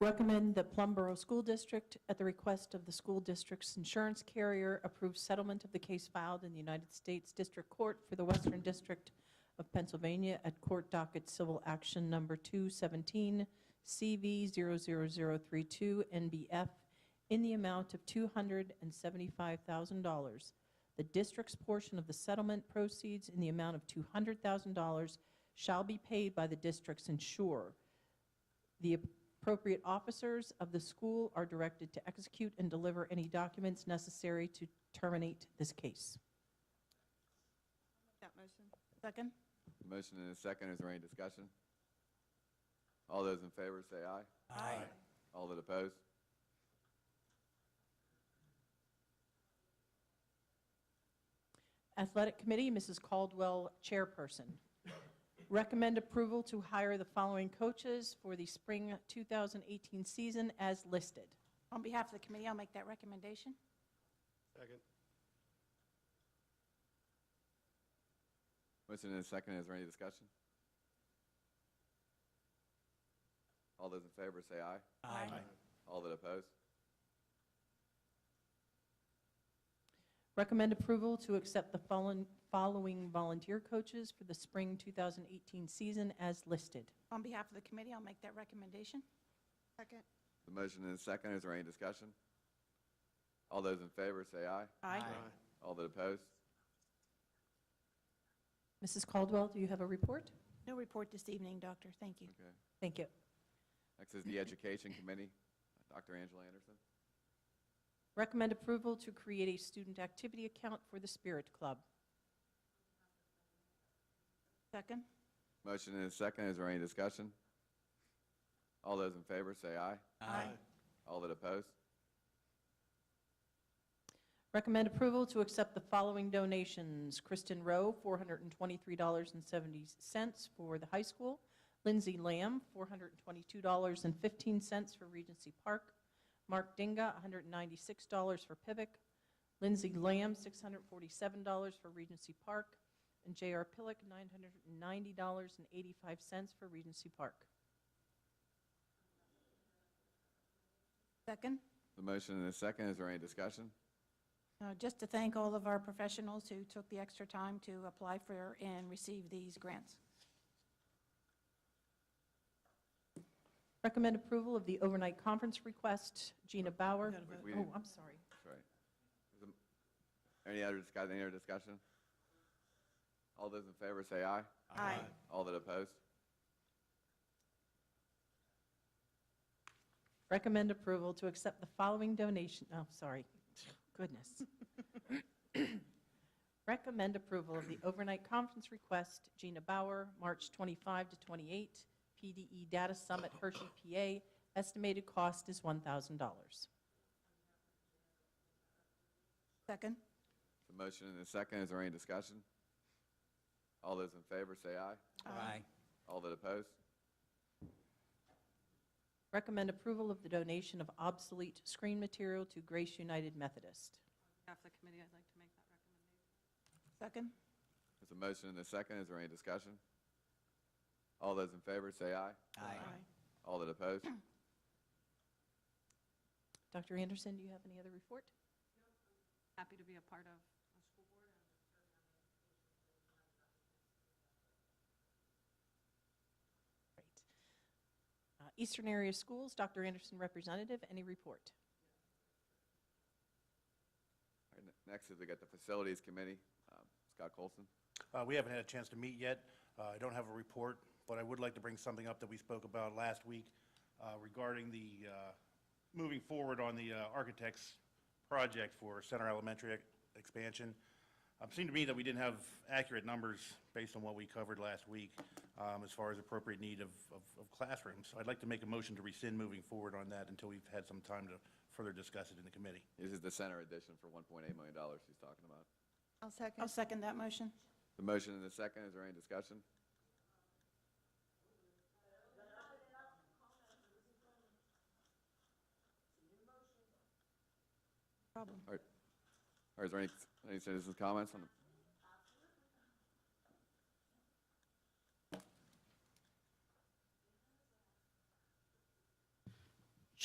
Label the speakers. Speaker 1: Recommend the Plumboro School District, at the request of the school district's insurance carrier, approve settlement of the case filed in the United States District Court for the Western District of Pennsylvania at Court Docket Civil Action Number 217 CV 00032 NBF in the amount of $275,000. The district's portion of the settlement proceeds in the amount of $200,000 shall be paid by the district's insurer. The appropriate officers of the school are directed to execute and deliver any documents necessary to terminate this case.
Speaker 2: That motion?
Speaker 1: Second.
Speaker 3: Motion and a second, is there any discussion? All those in favor say aye.
Speaker 4: Aye.
Speaker 3: All that oppose?
Speaker 1: Athletic Committee, Mrs. Caldwell, Chairperson. Recommend approval to hire the following coaches for the spring 2018 season as listed.
Speaker 5: On behalf of the committee, I'll make that recommendation.
Speaker 4: Second.
Speaker 3: Motion and a second, is there any discussion? All those in favor say aye.
Speaker 5: Aye.
Speaker 3: All that oppose?
Speaker 1: Recommend approval to accept the follow- following volunteer coaches for the spring 2018 season as listed.
Speaker 5: On behalf of the committee, I'll make that recommendation.
Speaker 2: Second?
Speaker 3: The motion and a second, is there any discussion? All those in favor say aye.
Speaker 5: Aye.
Speaker 3: All that oppose?
Speaker 1: Mrs. Caldwell, do you have a report?
Speaker 5: No report this evening, Doctor. Thank you.
Speaker 3: Okay.
Speaker 1: Thank you.
Speaker 3: Next is the Education Committee, Dr. Angela Anderson.
Speaker 1: Recommend approval to create a student activity account for the Spirit Club.
Speaker 5: Second?
Speaker 3: Motion and a second, is there any discussion? All those in favor say aye.
Speaker 5: Aye.
Speaker 3: All that oppose?
Speaker 1: Recommend approval to accept the following donations. Kristen Rowe, $423.70 for the high school. Lindsay Lamb, $422.15 for Regency Park. Mark Dinga, $196 for Pivot. Lindsay Lamb, $647 for Regency Park. And J.R. Pillock, $990.85 for Regency Park.
Speaker 5: Second?
Speaker 3: The motion and a second, is there any discussion?
Speaker 5: Uh, Just to thank all of our professionals who took the extra time to apply for and receive these grants.
Speaker 1: Recommend approval of the overnight conference request. Gina Bauer.
Speaker 3: We- we
Speaker 1: Oh,
Speaker 3: didn't-
Speaker 1: I'm sorry.
Speaker 3: That's right. Is it- Any other discussion, any other discussion? All those in favor say aye.
Speaker 5: Aye.
Speaker 3: All that oppose?
Speaker 1: Recommend approval to accept the following donation, oh, sorry, goodness. Recommend approval of the overnight conference request, Gina Bauer, March 25 to 28, PDE E Data Summit Hershey, PA. Estimated cost is $1,000.
Speaker 5: Second?
Speaker 3: The motion and the second, is there any discussion? All those in favor say aye.
Speaker 4: Aye.
Speaker 3: All that oppose?
Speaker 1: Recommend approval of the donation of obsolete screen material to Grace United Methodist.
Speaker 2: Behalf of the committee, I'd like to make that
Speaker 5: Second?
Speaker 2: recommendation.
Speaker 3: There's a motion and a second, is there any discussion? All those in favor say aye. All that oppose?
Speaker 1: Dr. Anderson, do you have any other report?
Speaker 2: Happy to be a part of a school board.
Speaker 1: Great. Uh, Eastern Area Schools, Dr. Anderson representative, any report?
Speaker 3: All right, ne- Next is we got the Facilities Committee, um, Scott Colson.
Speaker 6: Uh, We haven't had a chance to meet yet. Uh, I don't have a report, but I would like to bring something up that we spoke about last week uh, regarding the, uh, moving forward on the uh, architect's project for Center Elementary ex- expansion. It seemed to me that we didn't have accurate numbers based on what we covered last week um, as far as appropriate need of of- of classrooms. So I'd like to make a motion to rescind moving forward on that until we've had some time to further discuss it in the committee.
Speaker 3: This is the center edition for $1.8 million she's talking about.
Speaker 2: I'll
Speaker 5: I'll
Speaker 2: second.
Speaker 5: second that motion.
Speaker 3: The motion and the second, is there any discussion?
Speaker 5: Problem.
Speaker 3: All right, is there any, any citizens' comments on the